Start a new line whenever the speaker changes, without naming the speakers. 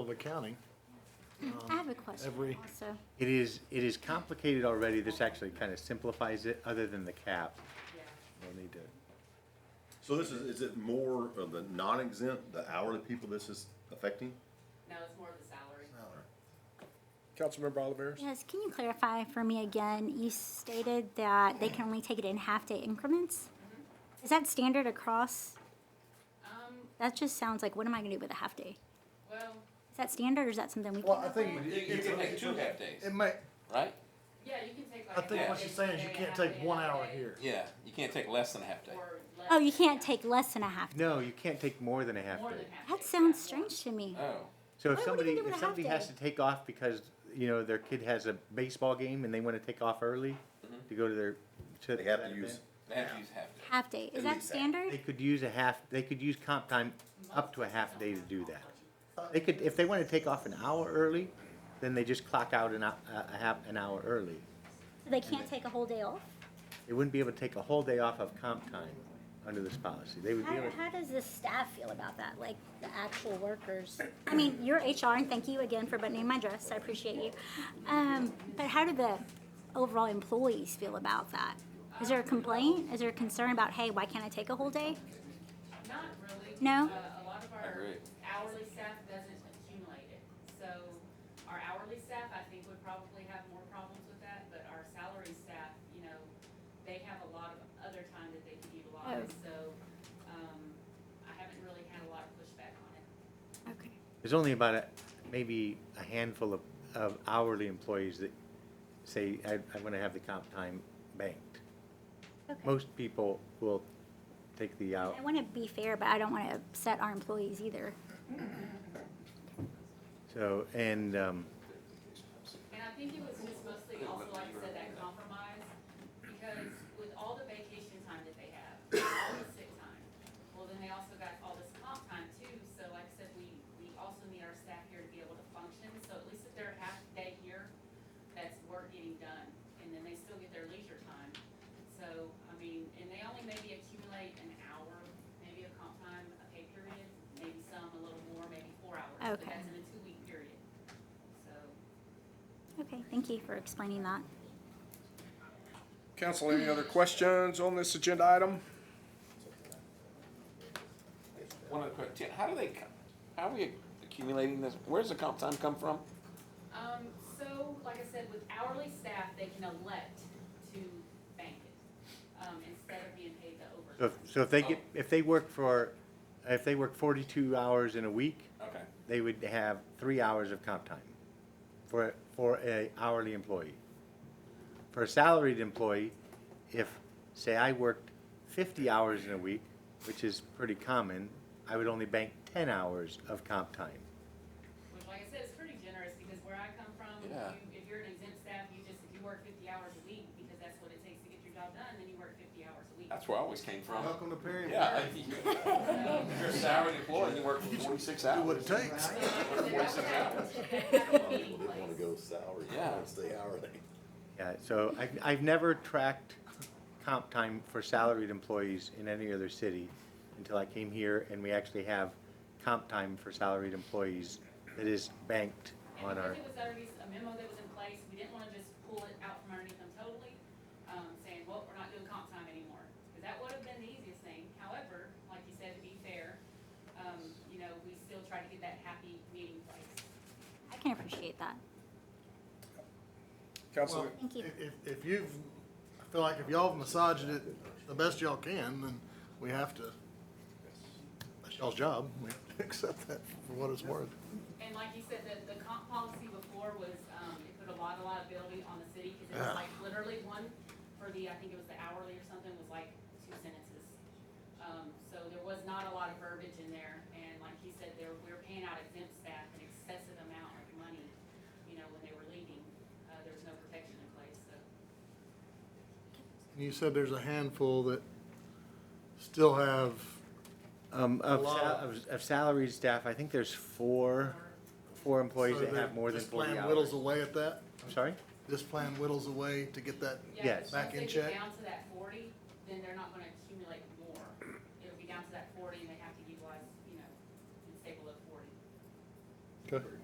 of accounting.
I have a question
Um, every-
also.
It is, it is complicated already. This actually kind of simplifies it, other than the cap.
No need to.
So this is, is it more of the non-exempt, the hourly people this is affecting?
No, it's more of the salary.
Councilmember Oliveris?
Yes, can you clarify for me again? You stated that they can only take it in half-day increments? Is that standard across?
Um,
That just sounds like, what am I gonna do with a half-day?
well,
Is that standard or is that something we
Well, I
can?
think
You, you can take two half
it
days,
may,
right?
yeah, you can take like.
I
a
think what
half
she's
day
saying is you
today, a
can't
half
take
day
one
another
hour
day,
here.
Yeah, you can't take less than a half day.
or less.
Oh, you can't
Yeah,
take less than a half.
No, you can't take more than a half
More
day.
than half.
That
day,
sounds
yeah.
strange to me.
Oh,
So if
Why would
somebody,
we do it a
if
half
somebody has
day?
to take off because, you know, their kid has a baseball game and they want to take off early to go to their, to.
Mm-hmm. They have to
that
use,
event,
they have to use half day.
Half-day, is
At
that
least that.
They
standard?
could use a half, they could use comp time up to a half day to do that. They could, if they want to take off an hour early, then they just clock out an, hou- a, a half, an hour early.
So They can't take a whole day off?
They wouldn't be able to take a whole day off of comp time under this policy. They would be
How,
able to.
how does the staff feel about that, like the actual workers? I mean, you're HR, and thank you again for buttoning my dress, I appreciate you. Um, but how do the overall employees feel about that? Is there a complaint? Is there a concern about, hey, why can't I take a whole day?
Not really.
No?
Uh, A lot of our
agree.
hourly staff doesn't accumulate it, so our hourly staff, I think, would probably have more problems with that, but our salary staff, you know, they have a lot of other time that they can utilize,
Oh.
so, um, I haven't really had a lot of pushback on it.
Okay.
There's only about a, maybe a handful of, of hourly employees that say, I, I wanna have the comp time banked.
Okay.
Most people will take the out.
I wanna be fair, but I don't wanna upset our employees either.
So, and, um,
And I think it was just mostly also, like I said, that compromise, because with all the vacation time that they have, all the sick time, well, then they also got all this comp time too, so like I said, we, we also need our staff here to be able to function, so at least if they're half day here, that's work getting done, and then they still get their leisure time. So, I mean, and they only maybe accumulate an hour, maybe a comp time, a pay period, maybe some a little more, maybe four hours, but
Okay.
that's in a two-week period, so.
Okay, thank you for explaining that.
Council, any other questions on this agenda item?
One other question, how do they, co- how are we accumulating this? Where's the comp time come from?
Um, so, like I said, with hourly staff, they can elect to bank it, um, instead of being paid the
so if,
overtime.
so if they get, if they work for, if they work forty-two hours in a week,
Okay,
they would have three hours of comp time for, for a hourly employee. For a salaried employee, if, say, I worked fifty hours in a week, which is pretty common, I would only bank ten hours of comp time.
Which, like I said, is pretty generous, because where I come from, you,
Yeah.
if you're an exempt staff, you just, if you work fifty hours a week, because that's what it takes to get your job done, then you work fifty hours a week.
that's where I always came from.
to Perry.
Yeah. If you're a salaried employee, you work for forty-six hours.
What it takes.
they wanna go salary, they
Yeah.
wanna stay hourly.
Yeah, so I, I've never tracked comp time for salaried employees in any other city until I came here and we actually have comp time for salaried employees that is banked on
And
our.
because it was already a memo that was in place, we didn't wanna just pull it out from underneath them totally, um, saying, well, we're not doing comp time anymore. Cause that would've been the easiest thing, however, like you said, to be fair, um, you know, we still try to get that happy meeting place.
I can appreciate that.
Council,
Well,
Thank you.
If, if- if you've, I feel like if y'all have massaged it the best y'all can, then we have to, that's y'all's job, we have to accept that for what it's worth.
And like you said, the, the comp policy before was, um, it put a lot of liability on the city, cause it was
Yeah.
like literally one for the, I think it was the hourly or something, was like two sentences. Um, so there was not a lot of verbiage in there, and like he said, there, we were paying out exempt staff an excessive amount of money, you know, when they were leaving, uh, there was no protection in place, so.
You said there's a handful that still have,
Um, of,
lot
sal-
of-
of, of salaried staff, I think there's four, four employees
so
that have more than
this
forty
plan
hours.
whittles away at that,
I'm sorry?
this plan whittles away to get that,
Yeah, 'cause
Yes.
Back in
once they
check?
get down to that forty, then they're not gonna accumulate more, it'll be down to that forty, and they have to utilize, you know, and stay below forty.